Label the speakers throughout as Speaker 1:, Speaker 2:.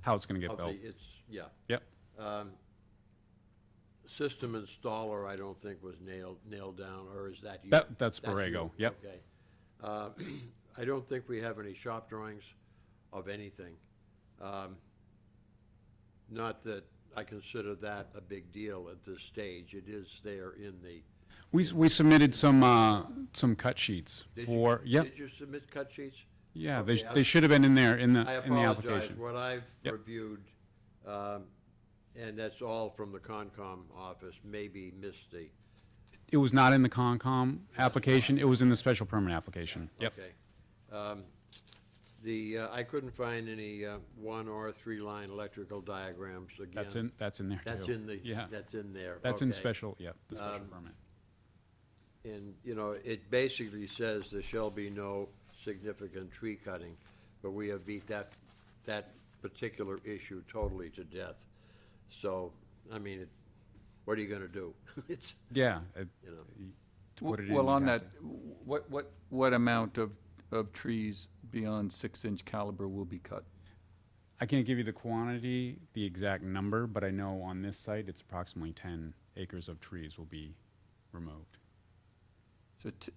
Speaker 1: how it's going to get
Speaker 2: Of the-
Speaker 1: built.
Speaker 2: It's, yeah.
Speaker 1: Yep.
Speaker 2: Um, System installer, I don't think was nailed, nailed down, or is that you?
Speaker 1: That- that's
Speaker 2: you?
Speaker 1: Borrego, yep.
Speaker 2: Okay. Uh, I don't think we have any shop drawings of anything. Um, Not that I consider that a big deal at this stage. It is there in the.
Speaker 1: We, s- we submitted some, uh, some cut sheets
Speaker 2: did you-
Speaker 1: for, yep,
Speaker 2: Did you submit cut sheets?
Speaker 1: yeah, they,
Speaker 2: okay,
Speaker 1: sh-
Speaker 2: I-
Speaker 1: they should have been in there, in
Speaker 2: I
Speaker 1: the, in the
Speaker 2: apologize,
Speaker 1: application.
Speaker 2: what I've
Speaker 1: Yep.
Speaker 2: reviewed, um, and that's all from the Concom office, maybe missed the,
Speaker 1: It was not in the Concom application, it was in the special permit application, yep.
Speaker 2: okay. Um, The, uh, I couldn't find any uh, one or three-line electrical diagrams again.
Speaker 1: That's in, that's in there too.
Speaker 2: That's in the,
Speaker 1: Yeah,
Speaker 2: that's in there.
Speaker 1: that's in
Speaker 2: okay.
Speaker 1: special, yep, the special
Speaker 2: Um,
Speaker 1: permit.
Speaker 2: And, you know, it basically says there shall be no significant tree cutting, but we have beat that, that particular issue totally to death. So, I mean, it- what are you gonna do? It's,
Speaker 1: Yeah. it-
Speaker 2: you know.
Speaker 1: to put it in,
Speaker 3: Well,
Speaker 1: you'd
Speaker 3: on
Speaker 1: have
Speaker 3: that, what, what, what amount of, of trees beyond six-inch caliber will be cut?
Speaker 1: I can't give you the quantity, the exact number, but I know on this site, it's approximately ten acres of trees will be removed.
Speaker 3: So t-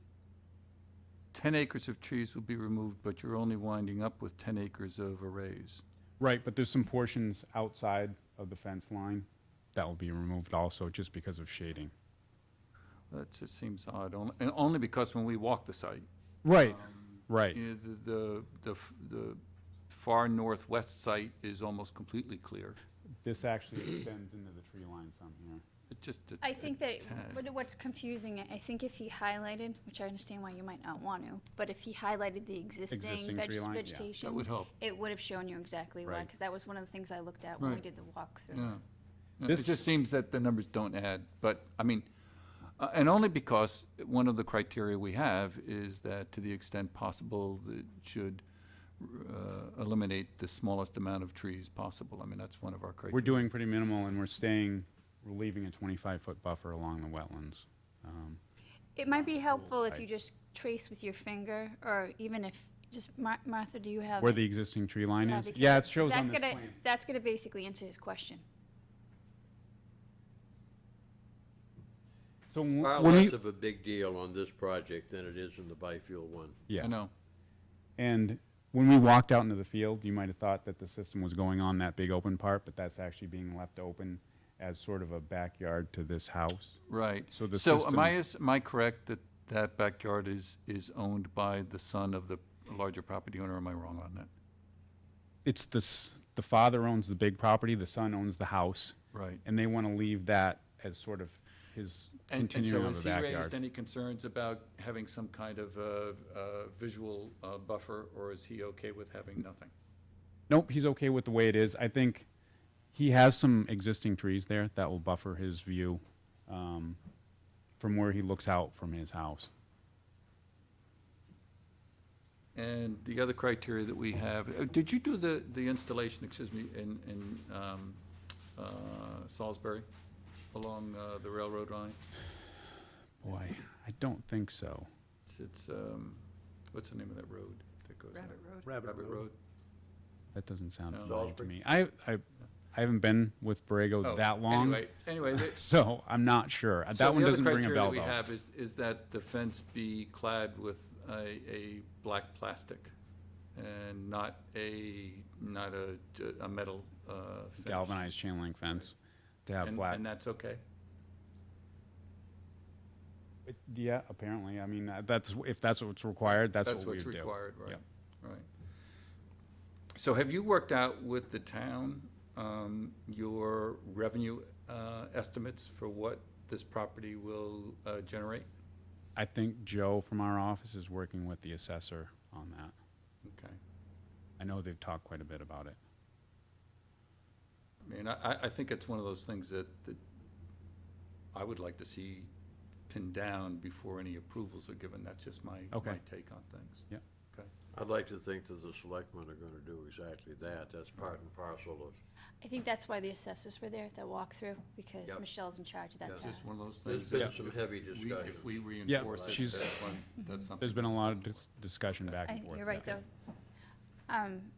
Speaker 3: ten acres of trees will be removed, but you're only winding up with ten acres of arrays.
Speaker 1: Right, but there's some portions outside of the fence line that will be removed also, just because of shading.
Speaker 3: That just seems odd, on- and only because when we walked the site,
Speaker 1: Right, right.
Speaker 3: you know, the, the, the, f- the far northwest site is almost completely clear.
Speaker 1: This actually extends into the tree line some here.
Speaker 3: It just. a-
Speaker 4: I
Speaker 3: a
Speaker 4: think that, it-
Speaker 3: tad.
Speaker 4: what- what's confusing, I think if he highlighted, which I understand why you might not want to, but if he highlighted the
Speaker 1: Existing
Speaker 4: existing
Speaker 1: tree
Speaker 4: veg-
Speaker 1: line, yeah.
Speaker 4: vegetation.
Speaker 3: That would help.
Speaker 4: It would have shown you exactly why,
Speaker 1: Right.
Speaker 4: because that was one of the things I looked at when we
Speaker 3: Right.
Speaker 4: did the walkthrough.
Speaker 3: Yeah. Yeah, It
Speaker 1: This-
Speaker 3: just seems that the numbers don't add, but, I mean, uh, and only because one of the criteria we have is that to the extent possible, it should uh, eliminate the smallest amount of trees possible. I mean, that's one of our criteria.
Speaker 1: We're doing pretty minimal and we're staying, we're leaving a twenty-five foot buffer along the wetlands. Um,
Speaker 4: It might be helpful if you just trace with your finger, or even if, just, Mar- Martha, do you have?
Speaker 1: Where
Speaker 4: it?
Speaker 1: the existing tree line
Speaker 4: Yeah,
Speaker 1: is?
Speaker 4: because
Speaker 1: Yeah, it shows on
Speaker 4: That's
Speaker 1: this
Speaker 4: gonna,
Speaker 1: plan.
Speaker 4: that's gonna basically answer his question.
Speaker 1: So when
Speaker 2: Far
Speaker 1: when
Speaker 2: less
Speaker 1: you-
Speaker 2: of a big deal on this project than it is in the biofuel one.
Speaker 3: I
Speaker 1: yeah.
Speaker 3: know.
Speaker 1: And when we walked out into the field, you might have thought that the system was going on that big open part, but that's actually being left open as sort of a backyard to this house.
Speaker 3: Right.
Speaker 1: So the
Speaker 3: So
Speaker 1: system-
Speaker 3: am I, is- am I correct that that backyard is, is owned by the son of the larger property owner? or Am I wrong on that?
Speaker 1: It's this, the father owns the big property, the son owns the house,
Speaker 3: Right.
Speaker 1: and they want to leave that as sort of his
Speaker 3: And, and
Speaker 1: continuum
Speaker 3: so
Speaker 1: of a
Speaker 3: has he raised
Speaker 1: backyard.
Speaker 3: any concerns about having some kind of uh, uh, visual uh, buffer, or is he okay with having nothing?
Speaker 1: Nope, he's okay with the way it is. I think he has some existing trees there that will buffer his view um, from where he looks out from his house.
Speaker 3: And the other criteria that we have, uh, did you do the, the installation, excuse me, in, in um, uh, Salisbury along uh, the railroad line?
Speaker 1: Boy, I don't think so.
Speaker 3: It's, it's, um, what's the name of that road that goes out? Rabbit Road.
Speaker 1: That doesn't sound
Speaker 3: No.
Speaker 1: familiar to
Speaker 2: Salisbury.
Speaker 1: me. I, I, I haven't been with Borrego
Speaker 3: Oh,
Speaker 1: that long,
Speaker 3: Anyway, anyway, the-
Speaker 1: so I'm not sure. Uh,
Speaker 3: So
Speaker 1: That one doesn't ring a bell,
Speaker 3: The other criteria that we
Speaker 1: though.
Speaker 3: have is, is that the fence be clad with a, a black plastic and not a, not a, a metal, uh. fence.
Speaker 1: Galvanized chain link fence to have
Speaker 3: And-
Speaker 1: black.
Speaker 3: And that's okay?
Speaker 1: It- Yeah, apparently. I mean, uh, that's, if that's what's required, that's what we would do.
Speaker 3: That's what's required, right,
Speaker 1: Yep.
Speaker 3: right. So have you worked out with the town, um, your revenue, uh, estimates for what this property will, uh, generate?
Speaker 1: I think Joe from our office is working with the assessor on that.
Speaker 3: Okay.
Speaker 1: I know they've talked quite a bit about it.
Speaker 3: I mean, I- I, I think it's one of those things that, that I would like to see pinned down before any approvals are given. That's just my, my
Speaker 1: Okay.
Speaker 3: take on things.
Speaker 1: Yep.
Speaker 3: Okay.
Speaker 2: I'd like to think that the selectmen are gonna do exactly that. That's part and parcel of
Speaker 4: I think that's why the assessors were there at that walkthrough, because
Speaker 2: Yep.
Speaker 4: Michelle's in charge of that
Speaker 2: Yes.
Speaker 3: It's
Speaker 4: job.
Speaker 3: just one of those
Speaker 2: There's
Speaker 3: things.
Speaker 2: been
Speaker 3: that
Speaker 2: some
Speaker 3: if
Speaker 2: heavy
Speaker 3: we-
Speaker 2: discussion.
Speaker 3: If we reinforce it,
Speaker 1: she's-
Speaker 3: that's one, that's something.
Speaker 1: There's been a
Speaker 3: that's
Speaker 1: lot of
Speaker 3: done.
Speaker 1: dis- discussion back
Speaker 4: I
Speaker 1: and
Speaker 4: think
Speaker 1: forth.
Speaker 4: you're right,
Speaker 1: yeah.
Speaker 4: though. Um,